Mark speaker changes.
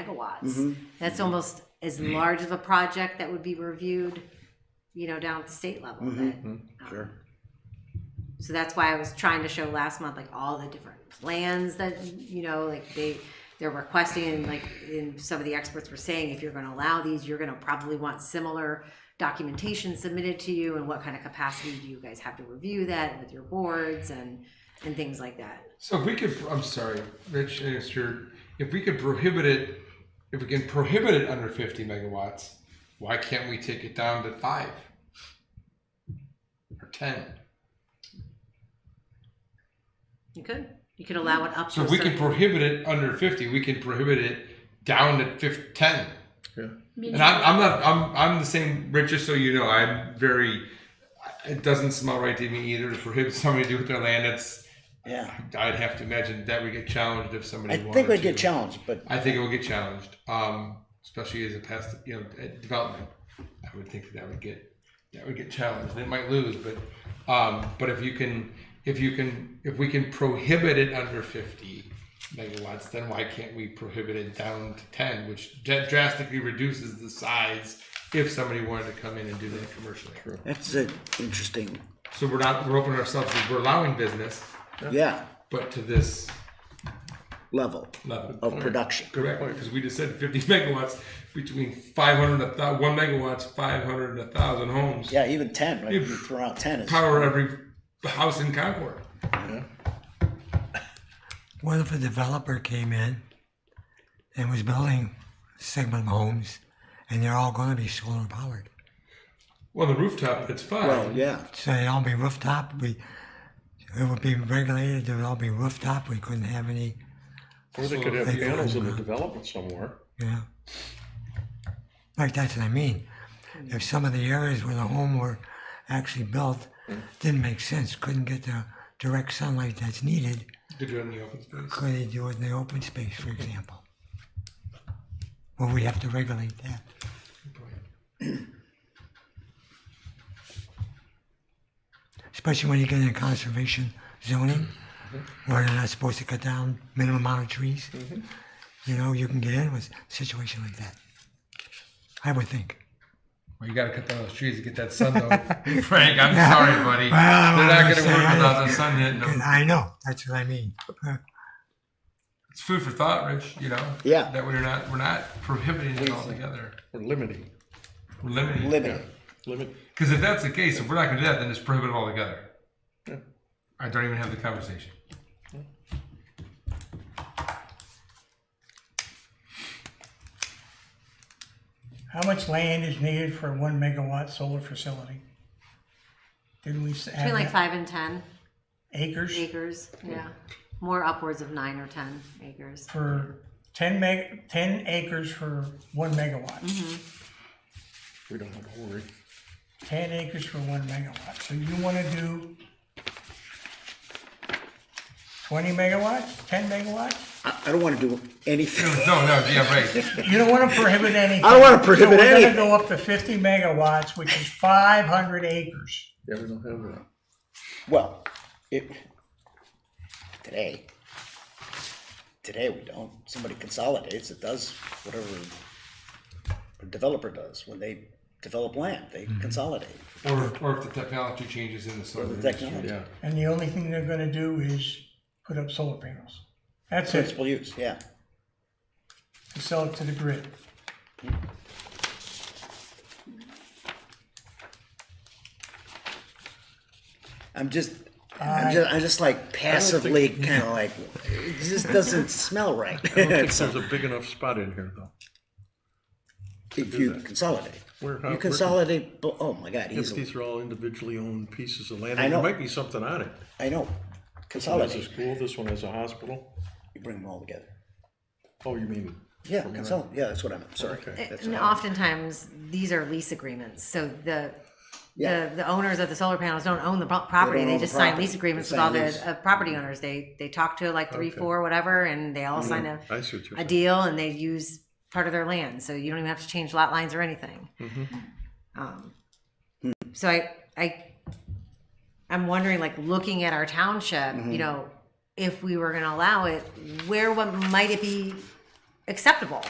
Speaker 1: megawatts.
Speaker 2: Mhm.
Speaker 1: That's almost as large of a project that would be reviewed, you know, down at the state level. that-
Speaker 2: Sure.
Speaker 1: So that's why I was trying to show last month, like all the different plans that you know, like they they're requesting, and like in some of the experts were saying, if you're going to allow these, you're going to probably want similar documentation submitted to you, and what kind of capacity do you guys have to review that with your boards and and things like that.
Speaker 3: So if we could, I'm sorry, Rich, and it's your, if we could prohibit it, if we can prohibit it under 50 megawatts, why can't we take it down to five or 10?
Speaker 1: You could you could allow it up.
Speaker 3: So
Speaker 1: to
Speaker 3: if
Speaker 1: a
Speaker 3: we can
Speaker 1: certain-
Speaker 3: prohibit it under 50, we can prohibit it down to 50, 10.
Speaker 4: Meaning,
Speaker 3: And I'm, I'm not, I'm, I'm the same, Rich, just so you know, I'm very, it doesn't smell right to me either to prohibit somebody to do with their land. That's,
Speaker 2: Yeah.
Speaker 3: I'd have to imagine that we get challenged if somebody
Speaker 2: I
Speaker 3: wanted
Speaker 2: think we'd
Speaker 3: to.
Speaker 2: get challenged, but
Speaker 3: I think it will get challenged, um, especially as it passed, you know, at development. I would think that, that would get that would get challenged. It might lose, but um, but if you can, if you can, if we can prohibit it under fifty megawatts, then why can't we prohibit it down to ten, which dra- drastically reduces the size if somebody wanted to come in and do that commercially.
Speaker 2: that's an interesting,
Speaker 3: So we're not we're opening ourselves we're allowing business,
Speaker 2: yeah,
Speaker 3: but to this
Speaker 2: level
Speaker 3: level
Speaker 2: of production.
Speaker 3: Correct, because we just said 50 megawatts between 500 and a thou- one megawatts, 500 and a thousand homes.
Speaker 2: Yeah, even ten, right? You throw out ten is,
Speaker 3: Power every house in Concord.
Speaker 5: What if a developer came in and was building segment homes and they're all going to be solar powered?
Speaker 3: Well, the rooftop, it's fine.
Speaker 2: well, yeah,
Speaker 5: So they'd all be rooftop. We, it would be regulated, they would all be rooftop. We couldn't have any,
Speaker 6: Or they could have panels in the development somewhere.
Speaker 5: you know. Like that's what I mean. If some of the areas where the home were actually built didn't make sense, couldn't get the direct sunlight that's needed,
Speaker 3: Could do it in the open space.
Speaker 5: could they do it in the open space, for example? Well, we have to regulate that. especially when you get into conservation zoning, where they're not supposed to cut down minimum amount of trees. You know, you can get in with a situation like that. I would think.
Speaker 3: Well, you got to cut down those trees to get that sun, though. Frank, I'm sorry, buddy.
Speaker 5: Well,
Speaker 3: They're not
Speaker 5: I'm
Speaker 3: going to
Speaker 5: sorry.
Speaker 3: work without the sun hitting
Speaker 5: And
Speaker 3: them.
Speaker 5: I know that's what I mean. Uh,
Speaker 3: It's food for thought, Rich. You know.
Speaker 2: Yeah.
Speaker 3: That we're not we're not prohibiting it altogether.
Speaker 6: Or limiting,
Speaker 3: We're limiting.
Speaker 2: limited.
Speaker 6: limit,
Speaker 3: Because if that's the case, if we're not going to do that, then it's prohibited altogether. I don't even have the conversation.
Speaker 7: How much land is needed for a one megawatt solar facility? Didn't we s-
Speaker 1: between
Speaker 7: have
Speaker 1: like
Speaker 7: that?
Speaker 1: five and ten
Speaker 7: acres
Speaker 1: acres. Yeah, more upwards of nine or ten acres.
Speaker 7: for ten meg, ten acres for one
Speaker 1: Mm-hmm.
Speaker 7: megawatt?
Speaker 6: we don't have to worry.
Speaker 7: Ten acres for one megawatt, so you wanna do twenty megawatts, ten megawatts?
Speaker 2: I, I don't wanna do anything.
Speaker 3: No, no, yeah, right.
Speaker 7: You don't wanna prohibit anything.
Speaker 2: I don't wanna prohibit
Speaker 7: So we're
Speaker 2: anything.
Speaker 7: gonna go up to fifty megawatts, which is five hundred acres.
Speaker 6: Yeah, we don't have that.
Speaker 2: Well, it, today, today we don't. Somebody consolidates, it does whatever a developer does. When they develop land, they consolidate
Speaker 3: Or, or if the technology changes in the
Speaker 2: for
Speaker 3: solar
Speaker 2: the
Speaker 3: industry.
Speaker 2: technology.
Speaker 6: Yeah.
Speaker 7: And the only thing they're gonna do is put up solar panels. That's it.
Speaker 2: Principal use, yeah.
Speaker 7: to sell it to the grid.
Speaker 2: I'm just, I'm just, I'm just like passively kind of like, it just doesn't smell right.
Speaker 6: I don't think
Speaker 2: So,
Speaker 6: there's a big enough spot in here though.
Speaker 2: if you consolidate,
Speaker 6: Where- how-
Speaker 2: you
Speaker 6: where-
Speaker 2: consolidate. bo- Oh my God,
Speaker 6: If
Speaker 2: easily.
Speaker 6: these are all individually owned pieces of land,
Speaker 2: I
Speaker 6: there
Speaker 2: know.
Speaker 6: might be something on it.
Speaker 2: I know.
Speaker 6: This is
Speaker 2: Consolidate.
Speaker 6: a school, this one has a hospital.
Speaker 2: You bring them all together.
Speaker 6: Oh, you mean?
Speaker 2: Yeah, consolidate. Yeah, that's what I'm. Sorry.
Speaker 6: Okay.
Speaker 2: That's
Speaker 1: And
Speaker 2: what I-
Speaker 1: oftentimes, these are lease agreements, so the,
Speaker 2: Yeah.
Speaker 1: the, the owners of the solar panels don't own the pro- property,
Speaker 2: own
Speaker 1: they
Speaker 2: the
Speaker 1: just sign
Speaker 2: property.
Speaker 1: lease agreements
Speaker 2: They
Speaker 1: with all
Speaker 2: sign
Speaker 1: the
Speaker 2: lease. Mm-hmm.
Speaker 1: uh, property owners, they, they talk to like three,
Speaker 6: Okay.
Speaker 1: four, whatever, and they all sign a,
Speaker 2: Mm-hmm.
Speaker 6: I see what you're
Speaker 1: a
Speaker 6: saying.
Speaker 1: deal, and they use part of their land, so you don't even have to change lot lines or anything. Um, So I, I, I'm wondering, like, looking at our township, you know, if we were gonna allow it, where, what might it be acceptable